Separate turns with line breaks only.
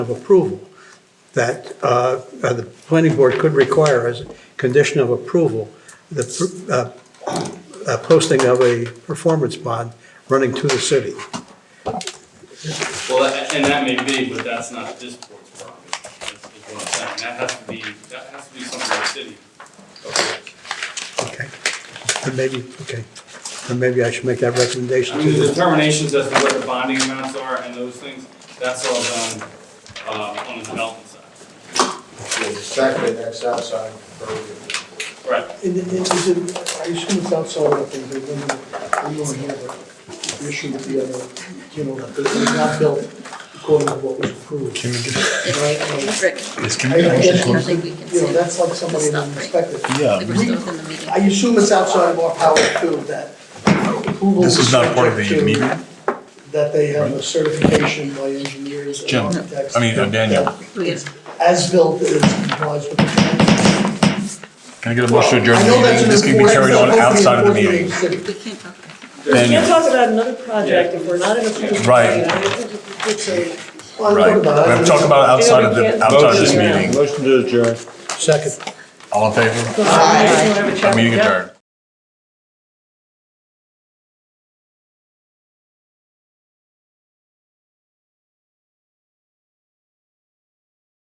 of approval that uh, uh, the planning board could require as a condition of approval, the pr- uh, uh, posting of a performance bond running to the city.
Well, that- and that may be, but that's not this board's problem, is is what I'm saying. That has to be, that has to be something the city.
Okay. And maybe, okay, and maybe I should make that recommendation
I
to
mean, the
the,
determinations as to what the bonding amounts are and those things, that's all done uh, on the development side.
Exactly, that's outside. the purview.
Right.
And it- it- is it, I assume it's outside of the, the, we don't have an issue with the other, you know, that this is not built according to what was approved.
Can we just,
Right,
Rick,
yes,
I-
can
I-
we actually
I
close?
think we can
You know,
say,
that's like somebody in the inspector.
Yeah.
like, we're still within the meeting.
I assume it's outside of our power too, that approval.
This is not part of the
subject to-
meeting?
That they have a certification by engineers and
Jim,
architects.
I mean, uh, Daniel.
We have-
As built is complies with the plans.
Can I get a motion to adjourn
I
the
know that's
meeting?
an
This can be
important-
carried on
hopefully
outside of the
important
meeting.
thing to do.
We can't talk about it.
Then-
Can't talk about another project if we're not in a position.
Right.
Well,
Right,
I'm talking about-
we're talking about outside of the, outside of this meeting.
second.
All in favor?
Right.
Meeting adjourned.